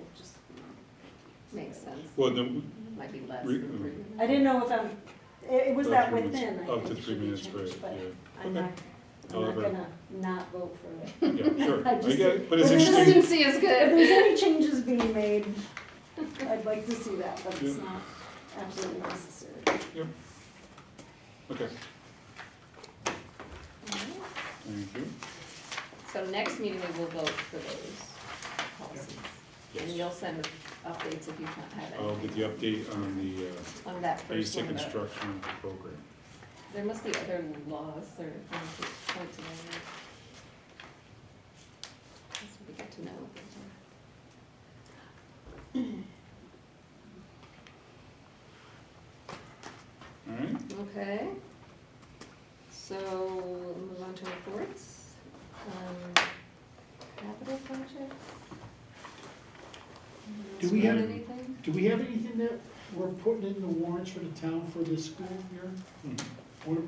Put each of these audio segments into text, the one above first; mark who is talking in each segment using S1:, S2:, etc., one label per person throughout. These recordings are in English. S1: um, Makes sense,
S2: Well, then,
S1: might be less
S2: Re- mm.
S1: than three.
S3: I didn't know if I'm, it, it was
S2: Up
S3: that
S2: to uh, Oh, three minutes-
S3: within, I think
S2: up to
S3: it
S2: three
S3: should be
S2: minutes
S3: changed,
S2: break,
S3: but
S2: yeah.
S3: I'm not, I'm not
S2: However.
S3: gonna not vote for it.
S2: yeah, sure,
S3: I
S2: I
S3: just-
S2: get it, but it's
S3: Well, this
S2: interesting.
S1: Consistency is
S3: If
S1: good.
S3: there's any changes being made, I'd like to see that, but it's
S2: Yeah.
S3: not absolutely necessary.
S2: Okay,
S1: Alright,
S2: thank you.
S1: So next meeting, we will vote for those policies. And
S2: Yes,
S1: you'll send updates if you can't have
S2: I'll
S1: any
S2: get the update on the uh,
S1: on that first
S2: basic
S1: one. though.
S2: instructional program.
S1: There must be other laws or things that point to them. That's what we get to know. what those are.
S2: All right,
S1: Okay. So we'll move on to reports. Um, Capital project?
S4: Do we have-
S1: Anything?
S4: Do we have anything that we're putting in the warrants for the town for this school year?
S2: Mhm.
S4: Wanna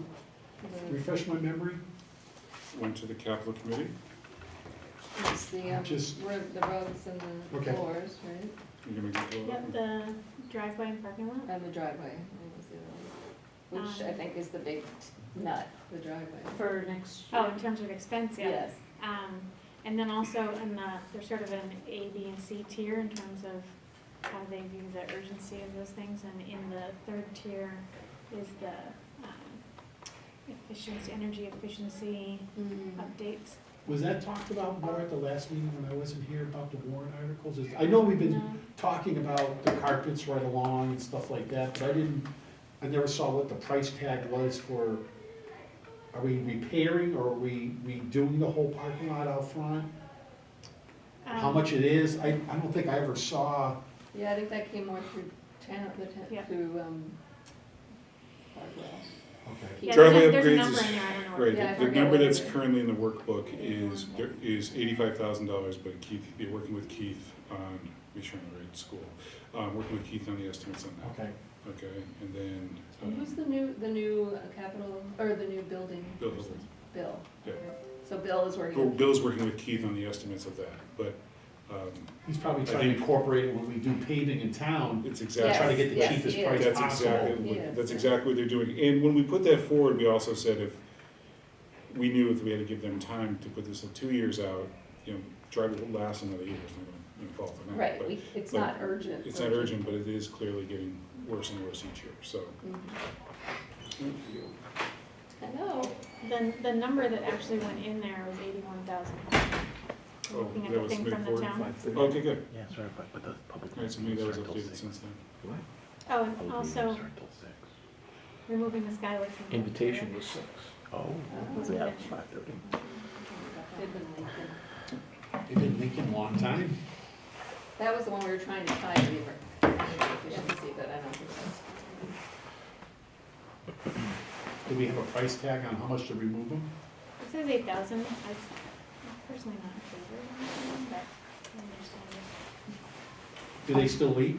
S1: The-
S4: Refresh my memory?
S2: went to the capital committee,
S1: It's the, um,
S4: Just-
S1: ro- the roads and the
S4: Okay.
S1: floors, right?
S2: you can make it go
S5: Yep, the driveway and parking lot.
S1: And the driveway, that was the other one. Which I
S5: Um,
S1: think is the big nut, the driveway.
S5: For next Oh, in terms of expense, yeah.
S1: Yes.
S5: Um, and then also in the, there's sort of an A, B, and C tier in terms of how they view the urgency of those things. And in the third tier is the, um, efficiency, energy efficiency Mm-hmm. updates.
S4: Was that talked about more at the last meeting when I wasn't here about the warrant articles? Is- I know we've been
S5: No?
S4: talking about the carpets right along and stuff like that, but I didn't, I never saw what the price tag was for, are we repairing or are we redoing the whole parking lot out front? How
S5: Um,
S4: much it is? I, I don't think I ever saw,
S1: Yeah, I think that came more through town, the town,
S5: Yeah.
S1: through, um, Hardwell.
S4: okay.
S5: Yeah,
S2: Driveway
S5: there's a- there's a
S2: upgrades
S5: number
S2: is-
S5: in there, I don't know what it is.
S1: Yeah, I
S2: Right, the- the
S1: forget
S2: number
S1: what it
S2: that's
S1: is.
S2: currently in the workbook is, there is eighty-five thousand dollars, but Keith, be working with Keith on, make sure I'm in the right school. Um, working with Keith on the estimates on that,
S4: Okay.
S2: okay, and then,
S1: And
S2: um,
S1: Who's the new, the new uh, capital, or the new building?
S2: Bill
S1: person?
S2: Hilton.
S1: Bill.
S2: Yeah.
S1: So Bill is
S2: Bill-
S1: working,
S2: Bill's working with Keith on the estimates of that, but, um,
S4: He's probably
S2: I
S4: trying to
S2: think-
S4: incorporate it when we do paving in town,
S2: it's
S1: Yes,
S2: exactly.
S4: try to get the
S1: yes,
S4: cheapest
S1: yes.
S4: price
S2: That's exactly,
S4: possible.
S1: Yeah.
S2: what- that's exactly what they're doing, and when we put that forward, we also said if, we knew if we had to give them time to put this at two years out, you know, drive will last another year, it's not gonna, you know, fall off the map,
S1: right,
S2: but-
S1: we, it's
S2: but
S1: not urgent.
S2: It's not urgent, but it is clearly getting worse and worse each year, so.
S1: Mhm. Mm-hmm. I know,
S5: The, the number that actually went in there was eighty-one thousand.
S2: Oh,
S5: Looking at
S2: that
S5: the
S2: was
S5: thing
S2: made
S5: from the
S2: forward?
S5: town.
S2: Okay, good.
S6: Yeah, sorry, but, but the public.
S2: All right, so maybe that was updated since then.
S5: Oh, and also removing the skylights. and-
S6: Invitation was six. Oh.
S5: we
S6: Yeah,
S5: have
S6: five thirty.
S1: they've been leaking.
S4: They've been leaking a long time.
S1: That was the one we were trying to tie Weaver, efficiency, but I don't think that's.
S4: Do we have a price tag on how much to remove them?
S5: It says eight thousand, I'm personally not in favor of anything, but I understand it
S4: Do they still leak?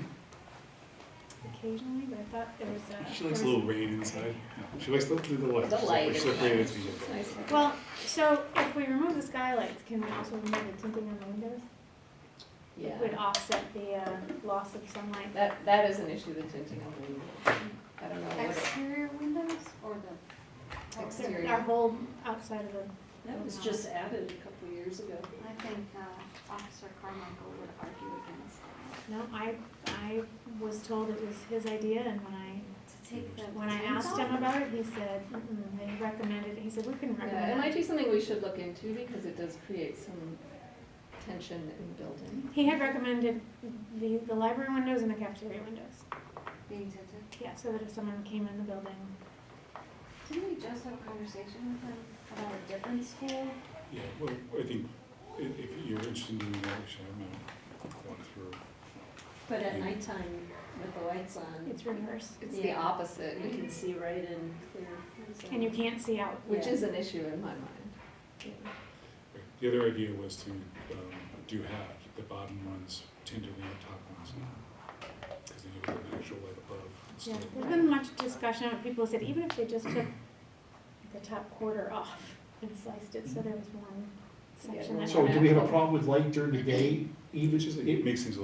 S5: occasionally, but I thought there was a.
S2: She likes a
S5: there
S2: little
S5: was-
S2: rain inside. She likes the, the light.
S1: The light is
S2: She's afraid it's
S1: nice.
S2: gonna
S1: Nice.
S5: Well, so if we remove the skylights, can we also remove the tinting on the windows?
S1: Yeah,
S5: It Would offset the, uh, loss of sunlight.
S1: that, that is an issue, the tinting on the windows. I don't know what
S5: Exterior windows or
S3: Oh,
S1: exterior.
S5: Our whole outside of the.
S3: That was just added a couple of years ago.
S7: I think uh, Officer Carmichael would argue against that.
S5: No, I, I was told it was his idea, and when I,
S7: To take the.
S5: when I
S7: tables
S5: asked him
S7: off?
S5: about it, he said, mm-mm, they recommended, he said, we can
S1: Yeah, it
S5: recommend.
S1: might
S5: it."
S1: be something we should look into because it does create some tension in the building.
S5: He had recommended the, the library windows and the cafeteria windows,
S7: Being tinted.
S5: yeah, so that if someone came in the building.
S7: Didn't we just have a conversation with him about a different school?
S2: Yeah, well, I think i- if you're interested in doing that, we should have a walk through.
S3: But at nighttime, with the lights on,
S5: It's reverse,
S1: It's the opposite,
S3: you can see right in clear. so-
S5: and you can't see out.
S1: which
S3: Yeah.
S1: is an issue in my mind.
S2: The other idea was to, um, do half, the bottom ones tinted and the top ones not. Cause then you have an actual light above.
S5: Yeah,
S2: instead of-
S5: there's been much discussion, of people said even if they just took the top quarter off and sliced it, so there was one
S1: Yeah,
S5: section that.
S1: one
S4: So do we have a problem with light during the day, even
S2: Which is, it
S4: if
S2: makes things a little